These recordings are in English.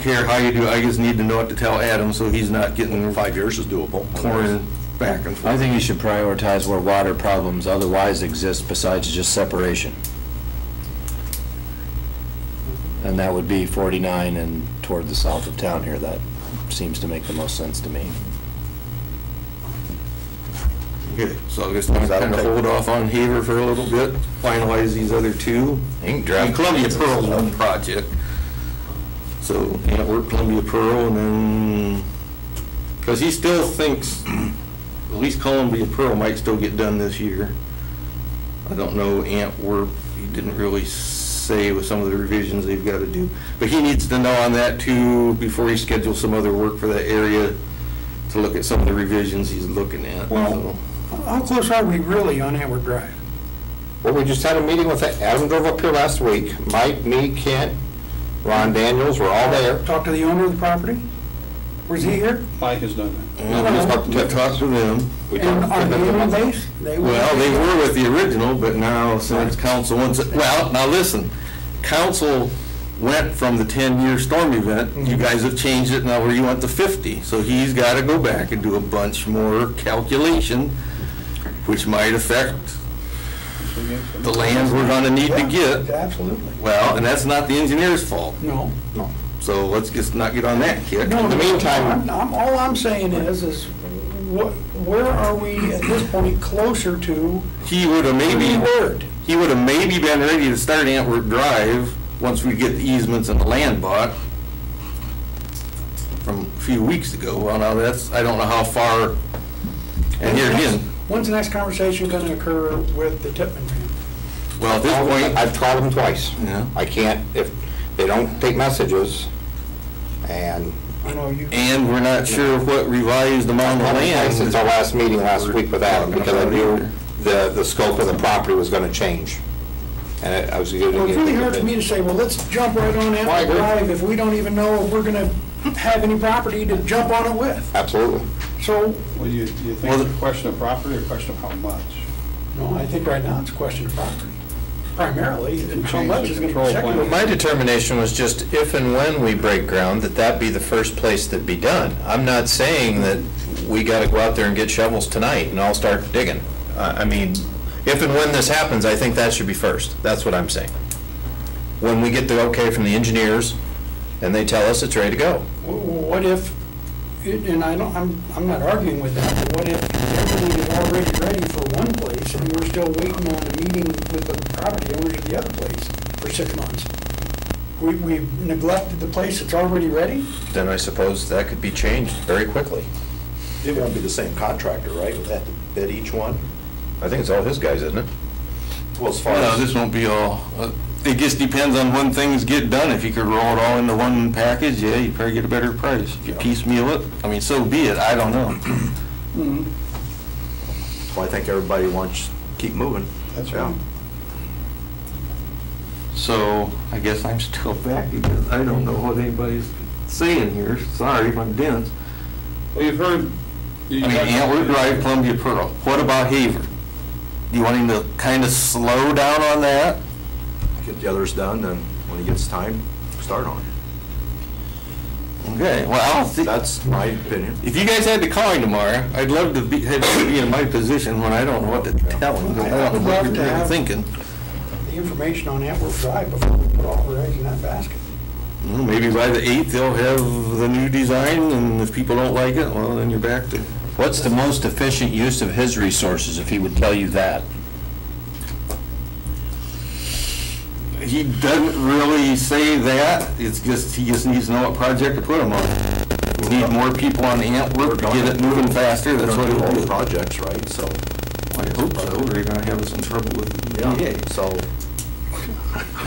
care how you do, I just need to know what to tell Adam, so he's not getting Five years is doable. torn back and I forth. think you should prioritize where water problems otherwise exist besides just separation. And that would be 49 and toward the south of town here. That seems to make the most sense to me. Okay, So I guess I'm gonna hold off on Haver for a little bit, finalize these other two. think And Columbia Pearl's one project. So, yeah, we're Columbia Pearl, and then, because he still thinks, at least Columbia Pearl might still get done this year. I don't know Antwerp, he didn't really say with some of the revisions they've got to do. But he needs to know on that too, before he schedules some other work for that area, to look at some of the revisions he's looking at. Well- How close are we really on Antwerp Drive? Well, we just had a meeting with, Adam drove up here last week, Mike, me, Kent, Ron Daniels, we're all there. Talk to the owner of the property? Was he here? Mike has done that. And we just talked to- talked to them. We And talked on to the them. human base? They were- Well, they were with the original, but now since council wants, well, now listen, council went from the 10-year storm event, you Mm-hmm. guys have changed it now where you want the 50. So he's got to go back and do a bunch more calculation, which might affect the land we're going to need to get. Absolutely. Well, and that's not the engineer's fault, No. so let's just not get on that kick. No, In the meantime, I'm- I'm, all I'm saying is, is what, where are we at this point closer to he would have maybe. the word? he would have maybe been ready to start Antwerp Drive once we get the easements and the land bought from a few weeks ago. Well, now that's, I don't know how far, and here again, When's the next conversation gonna occur with the Tippman family? well, at this point, I've called them twice. Yeah. I can't, if they don't take messages, and I know you, and we're not sure what revised amount of land. Since our last meeting last week with Adam, because I knew the, the scope of the property was gonna change. And I was gonna. well, it really hurts me to say, well, let's jump right on I Antwerp agree. Drive if we don't even know if we're gonna have any property to jump on it with. Absolutely. So, Well, you, you think Well, it's a question of property or a question of how much? no, I think right now it's a question of property, primarily, and how Change much the is gonna control be plan. secondary. My determination was just if and when we break ground, that that be the first place that be done. I'm not saying that we gotta go out there and get shovels tonight and all start digging. I, I mean, if and when this happens, I think that should be first. That's what I'm saying. When we get the okay from the engineers and they tell us it's ready to go. What if, and I don't, I'm, I'm not arguing with that, but what if everything is already ready for one place and we're still waiting on a meeting with the property owners of the other place for six months? We, we've neglected the place that's already ready? Then I suppose that could be changed very quickly. It won't be the same contractor, right? We'll have to bid each one? I think it's all his guys, isn't it? Well, as far No, as, this won't be all, uh, it just depends on when things get done. If you could roll it all into one package, yeah, you probably get a better price. If you piecemeal it, I mean, so be it, I don't know. Mm-hmm. well, I think everybody wants to keep moving. That's Yeah. right. So I guess I'm still back because I don't know what anybody's saying here. Sorry if I'm dense. Well, you've heard. I mean, Antler Drive, Columbia Pearl. What about Haver? Do you want him to kind of slow down on that? Get the others done, then when he gets time, start on it. Okay, well, I don't think, That's my opinion. if you guys had to call him tomorrow, I'd love to be, have you be in my position when I don't know what to tell him. 'cause I don't know what you're really thinking. The information on Antwerp Drive before we put all our eggs in that basket. Well, Maybe by the eighth, they'll have the new design and if people don't like it, well, then you're back to. What's the most efficient use of his resources, if he would tell you that? He doesn't really say that, it's just, he just needs to know what project to put him on. We need more people on Antwerp to get it moving faster, They're that's what gonna do all it the is. projects, right, so. I hope so, or you're gonna have us in trouble with the E EPA. So,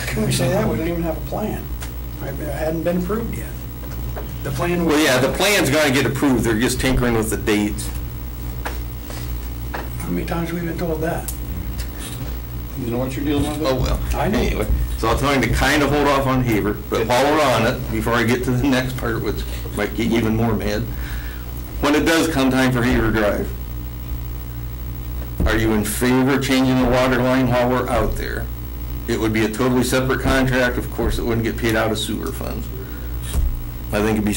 Can we say that? We don't even have a plan. I It hadn't been approved yet. The plan was. Well, yeah, the plan's gonna get approved, they're just tinkering with the dates. How many times have we been told that? You know what you're dealing with? Oh, well. I know. Anyway, so I'll tell him to kind of hold off on Haver, but while we're on it, before I get to the next part, which might get you even more mad, when it does come time for Haver Drive, are you in favor of changing the water line while we're out there? It would be a totally separate contract, of course, it wouldn't get paid out of sewer funds. I think it'd be